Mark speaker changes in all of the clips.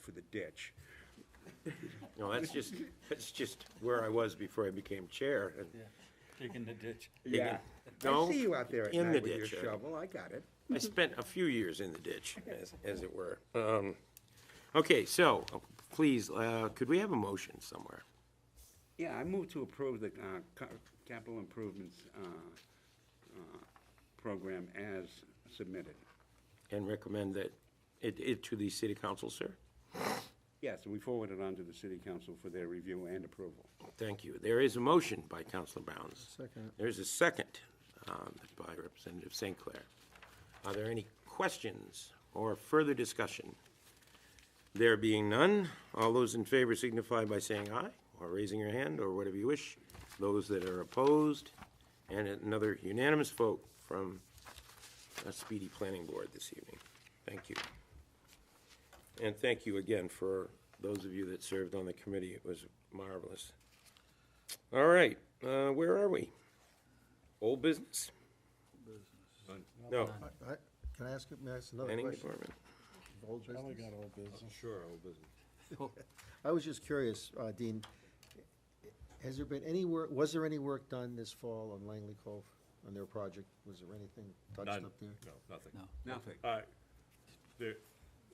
Speaker 1: for the ditch.
Speaker 2: No, that's just, that's just where I was before I became chair. and-
Speaker 3: Digging the ditch.
Speaker 1: Yeah. I
Speaker 2: No,
Speaker 1: see you out there at
Speaker 2: in
Speaker 1: night
Speaker 2: the
Speaker 1: with your
Speaker 2: ditch, uh,
Speaker 1: shovel, I got it.
Speaker 2: I spent a few years in the ditch, as, as it were. Um, Okay, so, please, uh, could we have a motion somewhere?
Speaker 1: Yeah, I move to approve the uh, ca- capital improvements uh, uh, program as submitted.
Speaker 2: And recommend that, it, it to the city council, sir?
Speaker 1: Yes, and we forward it on to the city council for their review and approval.
Speaker 2: Thank you. There is a motion by Councilor Bounds.
Speaker 4: Second.
Speaker 2: There's a second um, by Representative St. Clair. Are there any questions or further discussion? There being none, all those in favor signify by saying aye, or raising your hand, or whatever you wish. Those that are opposed, and another unanimous vote from a speedy planning board this evening. Thank you. And thank you again for those of you that served on the committee. It was marvelous. All right, uh, where are we? Old business? No,
Speaker 4: I- I- Can I ask, you- may I ask another
Speaker 2: planning
Speaker 4: question?
Speaker 2: department.
Speaker 4: of old business?
Speaker 5: Sure, old business.
Speaker 4: I was just curious, uh, Dean, has there been any work, was there any work done this fall on Langley Cove, on their project? Was there anything touched
Speaker 5: None,
Speaker 4: up there?
Speaker 5: no, nothing.
Speaker 3: No.
Speaker 1: Nothing.
Speaker 5: Uh, there-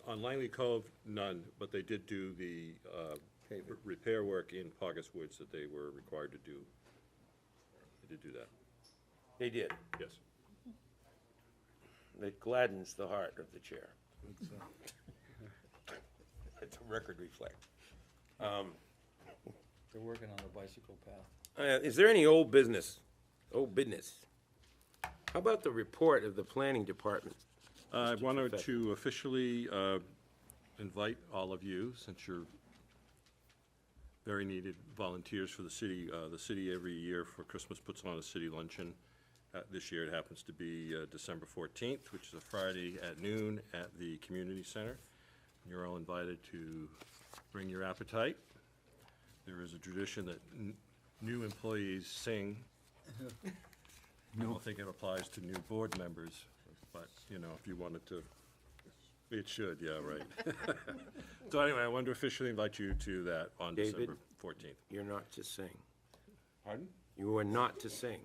Speaker 5: On Langley Cove, none, but they did do the uh, r- repair work in Pogus Woods that they were required to do. They did do that,
Speaker 2: They did.
Speaker 5: yes.
Speaker 2: It gladdens the heart of the chair. Let the record reflect.
Speaker 3: They're working on the bicycle path.
Speaker 2: Uh, is there any old business? Old business? How about the report of the planning department?
Speaker 5: Uh, I wanted
Speaker 2: Perfect.
Speaker 5: to officially uh, invite all of you, since you're very needed volunteers for the city. Uh, The city every year for Christmas puts on a city luncheon. Uh, This year it happens to be uh, December 14th, which is a Friday at noon at the community center. You're all invited to bring your appetite. There is a tradition that n- new employees sing. I don't think it applies to new board members, but, you know, if you wanted to, it should, yeah, right. So anyway, I wanted to officially invite you to that on
Speaker 2: David?
Speaker 5: December 14th.
Speaker 2: You're not to sing.
Speaker 5: Pardon?
Speaker 2: You are not to sing.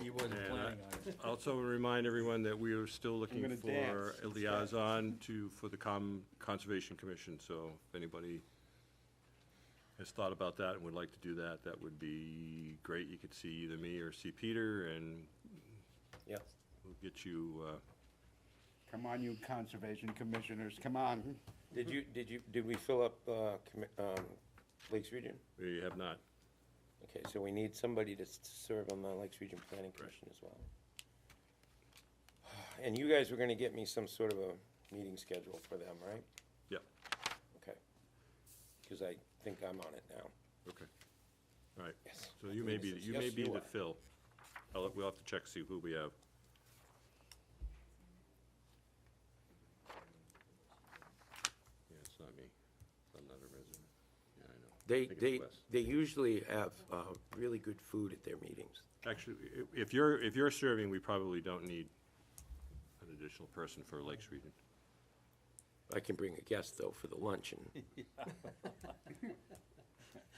Speaker 3: He wasn't
Speaker 5: And I-
Speaker 3: planning on it.
Speaker 5: Also remind everyone that we are still looking
Speaker 1: gonna
Speaker 5: for
Speaker 1: dance.
Speaker 5: a liaison to, for the Com, Conservation Commission, so if anybody has thought about that and would like to do that, that would be great. You could see either me or see Peter, and
Speaker 2: Yeah.
Speaker 5: we'll get you, uh,
Speaker 1: Come on, you conservation commissioners, come on.
Speaker 2: Did you, did you, did we fill up, uh, commi- um, Lakes Region?
Speaker 5: we have not.
Speaker 2: Okay, so we need somebody to s- serve on the Lakes Region Planning Commission as well. And you guys were gonna get me some sort of a meeting schedule for them, right?
Speaker 5: Yep,
Speaker 2: Okay. Because I think I'm on it now.
Speaker 5: okay. All right,
Speaker 2: Yes.
Speaker 5: so you may be, you may
Speaker 2: Yes,
Speaker 5: be
Speaker 2: you
Speaker 5: the
Speaker 2: are.
Speaker 5: Phil. I'll, we'll have to check, see who we have. Yeah, it's not me. I'm not a resident. Yeah, I know.
Speaker 2: They,
Speaker 5: think it's
Speaker 2: they,
Speaker 5: Wes.
Speaker 2: they usually have, uh, really good food at their meetings.
Speaker 5: Actually, i- if you're, if you're serving, we probably don't need an additional person for Lakes Region.
Speaker 2: I can bring a guest, though, for the luncheon.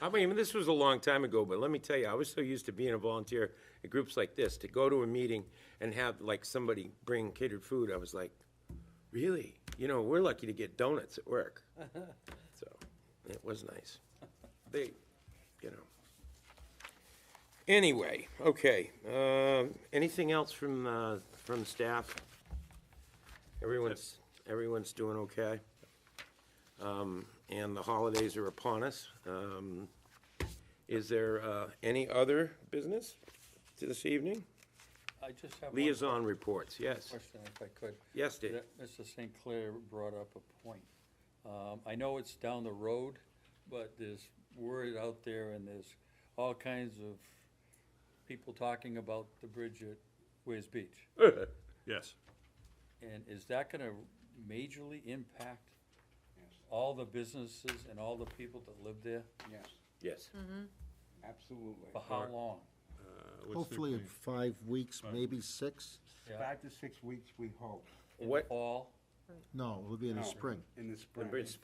Speaker 2: I mean, this was a long time ago, but let me tell you, I was so used to being a volunteer at groups like this, to go to a meeting and have, like, somebody bring catered food, I was like, really? You know, we're lucky to get donuts at work. So, it was nice. They, you know. Anyway, okay, um, anything else from, uh, from staff? Everyone's, everyone's doing okay? Um, and the holidays are upon us. Um, is there, uh, any other business to this evening?
Speaker 3: I just have one
Speaker 2: Liaison reports, yes.
Speaker 3: question if I could.
Speaker 2: Yes, Dave?
Speaker 3: That Mr. St. Clair brought up a point. Um, I know it's down the road, but there's word out there and there's all kinds of people talking about the bridge at Ways Beach.
Speaker 5: Yes. Uh,
Speaker 3: And is that gonna majorly impact all the businesses and all the people that live there?
Speaker 1: Yes,
Speaker 2: Yes.
Speaker 1: absolutely.
Speaker 3: For how long?
Speaker 5: Uh, what's the
Speaker 4: Hopefully in
Speaker 5: plan?
Speaker 4: five weeks, maybe six?
Speaker 3: Yeah.
Speaker 1: Five to six weeks, we hope.
Speaker 3: In the
Speaker 2: What-
Speaker 3: Fall?
Speaker 4: No, it'll be in the
Speaker 1: No,
Speaker 4: spring.
Speaker 1: In the
Speaker 2: The
Speaker 1: spring.
Speaker 2: bridge,